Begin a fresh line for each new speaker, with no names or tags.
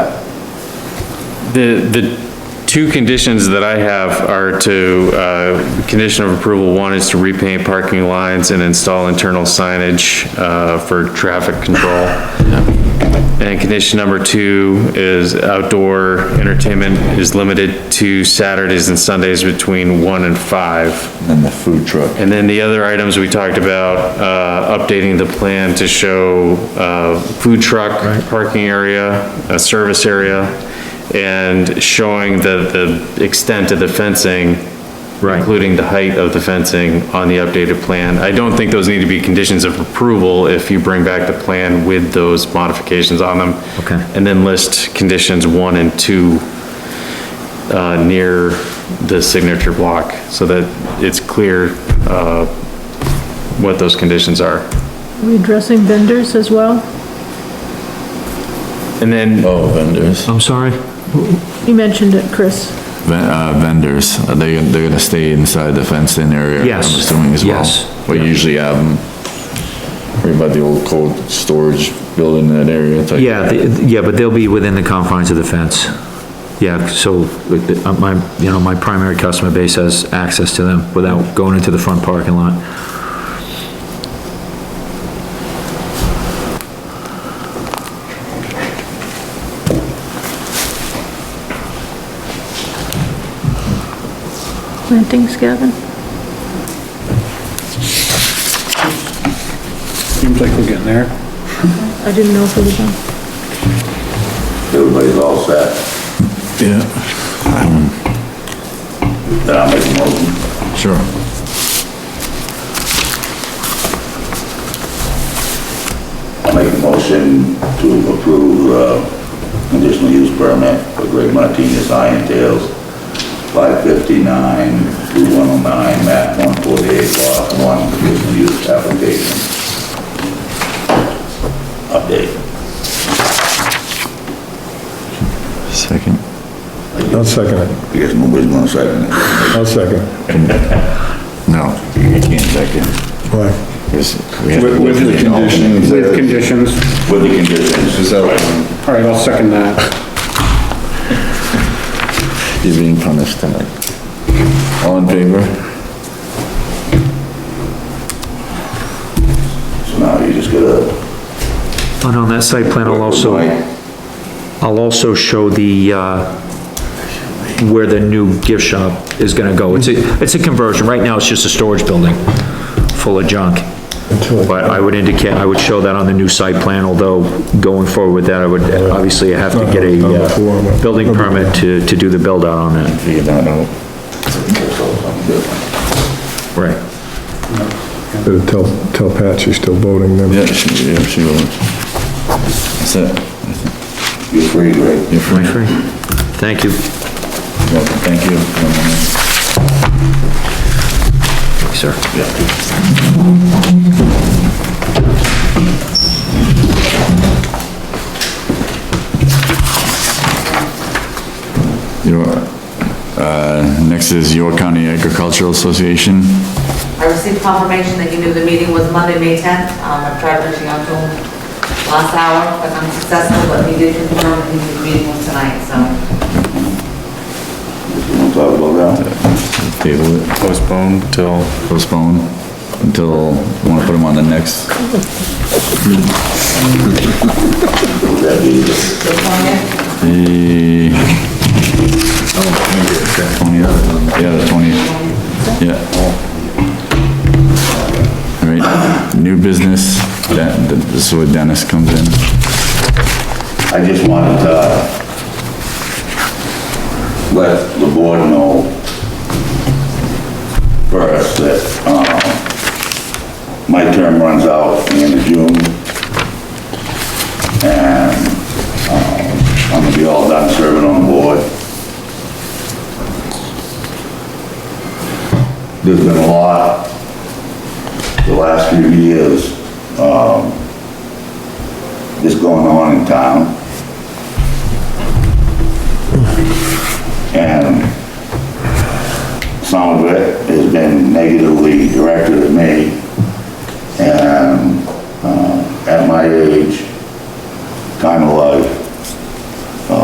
The, the two conditions that I have are to, uh, condition of approval, one is to repaint parking lines and install internal signage, uh, for traffic control. And condition number two is outdoor entertainment is limited to Saturdays and Sundays between one and five.
And the food truck.
And then the other items we talked about, uh, updating the plan to show, uh, food truck, parking area, a service area, and showing the, the extent of the fencing, including the height of the fencing on the updated plan. I don't think those need to be conditions of approval if you bring back the plan with those modifications on them.
Okay.
And then list conditions one and two uh, near the signature block, so that it's clear uh, what those conditions are.
We addressing vendors as well?
And then,
Oh, vendors.
I'm sorry?
You mentioned it, Chris.
Ven- uh, Vendors, are they, they're gonna stay inside the fenced-in area?
Yes,
I'm assuming as well?
yes.
We usually have them right by the old cold storage building in that area. it's like-
Yeah, the- yeah, but they'll be within the confines of the fence. Yeah, so with the- uh, my, you know, my primary customer base has access to them without going into the front parking lot.
Plantings, Gavin?
Seems like we're getting there.
I didn't know if it was on.
Everybody's all set.
Yeah,
Then I'll make a motion.
sure.
I'll make a motion to approve, uh, conditional use permit for Greg Martinez Iron Tales, five fifty-nine, two one oh nine, map one forty-eight, lot one, conditional use application. Update.
Second.
I'll second it.
I guess nobody's gonna second it.
I'll second it.
No, you can't second.
Why?
Yes, we have to
With,
look
with
at
the
it all.
conditions, Mm, with conditions.
With the conditions.
All right, I'll second that.
You're being punished tonight. All in favor?
So now you just gotta.
And on that site plan, I'll also, I'll also show the, uh, where the new gift shop is gonna go. It's a, it's a conversion. Right now, it's just a storage building full of junk. But I would indicate, I would show that on the new site plan, although going forward with that, I would obviously have to get a uh, building permit to, to do the build out on that.
Figure that out.
Right.
Better Tell, tell Pat she's still voting then.
Yeah, she, yeah, she will. That's it.
You're free, Greg.
You're free.
Thank you.
Welcome, thank you.
Sir.
Your, uh, next is York County Agricultural Association.
I received confirmation that you knew the meeting was Monday, May 10th. Um, I've tried reaching out to him last hour, but unsuccessful, but he did confirm that he knew the meeting was tonight, so.
You wanna talk about that?
Table it,
postpone till,
postpone until, wanna put them on the next,
Would that be the
This one here,
the... Twentieth, yeah, the twentieth, yeah. All right, new business, that, this is where Dennis comes in.
I just wanted to let the board know first that, um, my term runs out the end of June. And, um, I'm gonna be all done serving on the board. There's been a lot the last few years, um, that's going on in town. And some of it has been negatively directed at me. And uh, at my age, time of life,